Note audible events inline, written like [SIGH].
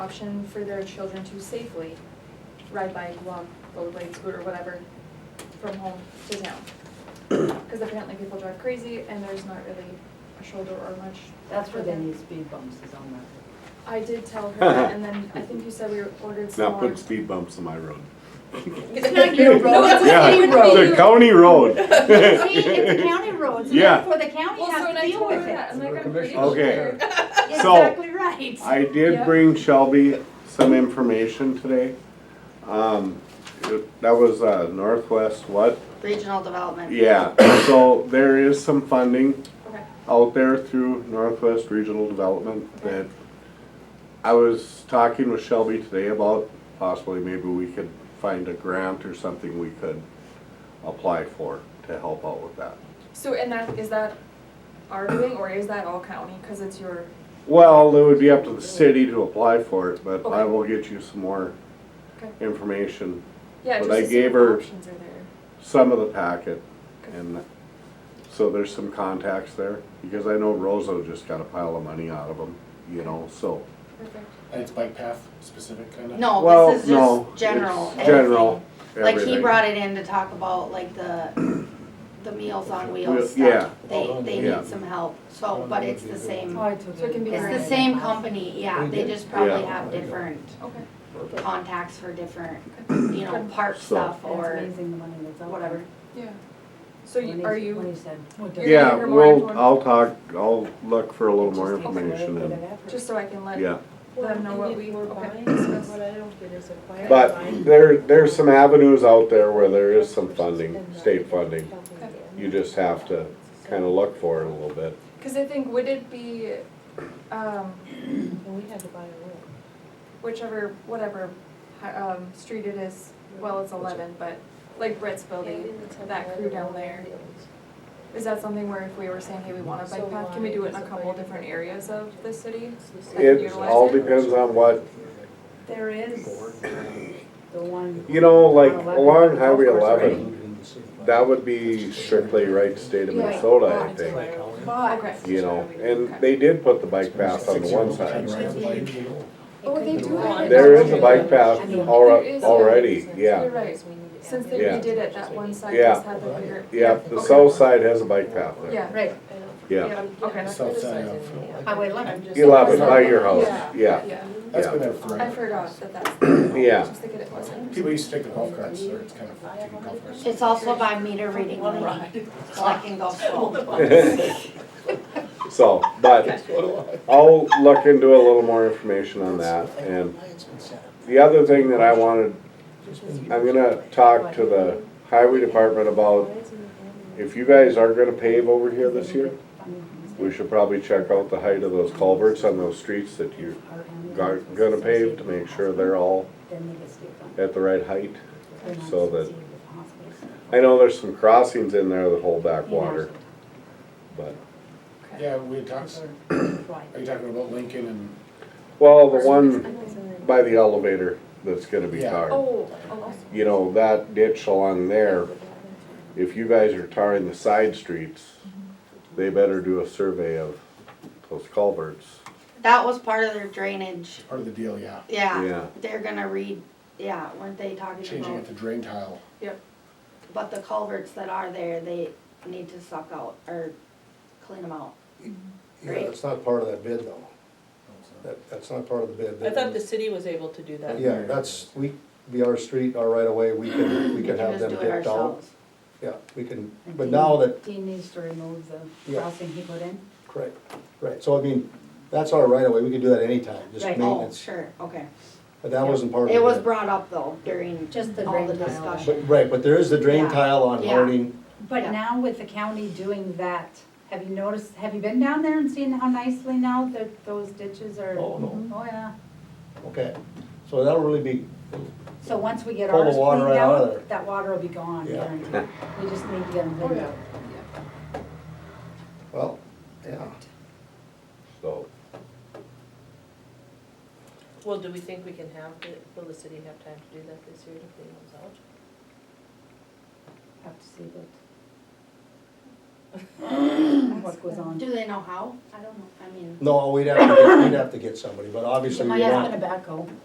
option for their children to safely ride bike, walk, rollerblade, scooter, whatever, from home to [CLEARS THROAT] town. Because apparently people drive crazy and there's not really a shoulder or much. That's where they room. need speed bumps is on that. I did tell [LAUGHS] her that, and then I think you said we ordered some Not more. putting [LAUGHS] speed bumps on my road. It's not your road. No, it's a Yeah, city road. It's a county [LAUGHS] road. [LAUGHS] See, it's a county road, so Yeah. therefore the county Well, so has when to I deal told her with that, it. I'm like, I'm pretty sure. Okay. So- Exactly right. I Yeah. did bring Shelby some information today. Um, it- that was, uh, Northwest what? Regional development. Yeah, [COUGHS] so there is some funding Okay, out there through Northwest Regional Development that I was talking with Shelby today about possibly maybe we could find a grant or something we could apply for to help out with that. so and that, is that our doing or is that all county? Because it's your, Well, it would be up to the city to apply for it, but I Okay. will get you some more Okay. information, yeah, But just I to see gave what her- options are there. some of the packet. And so there's some contacts there, because I know Rosa just got a pile of money out of them, you know, so. Perfect. And it's bike path specific kind of? No, Well, Oh, this is no, just general, it's General, everything. Like he everything. brought it in to talk about like the, the Meals on Wheel- Wheels yeah. stuff. They, they Yeah. need some help, so, but it's the same, Oh, I took So it can be it's the graded. same company, yeah, they just probably Yeah. have different Okay, contacts for different, you know, park So- stuff It's or amazing the money that's out there. whatever. yeah. So When you- he- are When you, he said. "Oh, it You're gonna Yeah, hear more we'll, info- I'll talk, I'll look for a little just more takes a way information bit and, of effort." just so I can let yeah. them know what we, were okay. buying, so what I don't get is if I. But there, there's some avenues out there where there is some funding, state funding. You just have to kind of look for it a little bit. Because I think, would it be, um, And we had to buy a room. whichever, whatever, hi- um, street it is, well, it's eleven, but like Brett's building, that crew down there. Is that something where if we were saying, hey, we want a So bike path, can we do it in a why is it couple like- different areas of the city? It all depends on what, There is the one. you know, like on 11, along Highway golf course, right? eleven, that would be strictly right state of Yeah. Minnesota, I think. Okay. But. You know, and they did put the bike path on the one side. Oh, they do have it. There is a bike path alri- already, You're yeah. right, since they Yeah. redid it, that one side Yeah. just had the bigger, Yeah, the south side has a bike path there, yeah, Right, yeah. okay. South side of. highway eleven. Eleven, by your house, yeah, Yeah, That's been there I forever. forgot that that's, I yeah. was just thinking it wasn't. People used to take the golf carts, or it's kind of taking golf carts. It's also by meter reading lady, collecting golf [LAUGHS] balls. [LAUGHS] So, but I'll look into a little more information on that. And the other thing that I wanted, I'm gonna talk to the highway department about, if you guys are gonna pave over here this year, we should probably check out the height of those culverts on those streets that you're gonna pave to make sure they're all at the right height. so that- I know there's some crossings in there that hold back water, but, Yeah, we talked, are you talking about Lincoln and, well, the one by the elevator that's gonna be Yeah. tarred. Oh, oh, you know, that ditch along there, if you guys are tarring the side streets, they better do a survey of those culverts. That was part of their drainage, part of the deal, yeah, Yeah. yeah, they're gonna read, yeah, weren't they talking changing about? it to drain tile. yep, But the culverts that are there, they need to suck out or clean them out. Yeah, that's not part of that bid though. That, that's not part of the bid. I thought the city was able to do that. Yeah, that's, we, be our street, our right of way, we can, we We can can have just them do it picked out. ourselves. Yeah, we can, but now that, Dean needs to remove the Yeah. crossing he put in. correct, right, so I mean, that's our right of way, we can do that anytime, just Right. Oh, maintenance. sure, okay. But that wasn't part of the It bid. was brought up though during Just the all the drain tile. discussion. But, right, but there is the drain Yeah. tile on Yeah. Harding, Yeah. But now with the county doing that, have you noticed, have you been down there and seen how nicely now that those ditches are? Oh, no. Oh, yeah. okay, so that'll really be, So once we get Pull the ours water cleaned right out of there. out, that water will be gone, Yeah. [LAUGHS] guaranteed. We just need to get them Oh, cleaned yeah. out. well, yeah. So, Well, do we think we can have, it? will the city have time to do that this year to clean those out? Have to see what. understand what goes on. Do they know how? I don't know, I mean. No, we'd have, to get- we'd have to get somebody, but obviously It we might want. have been a backhoe.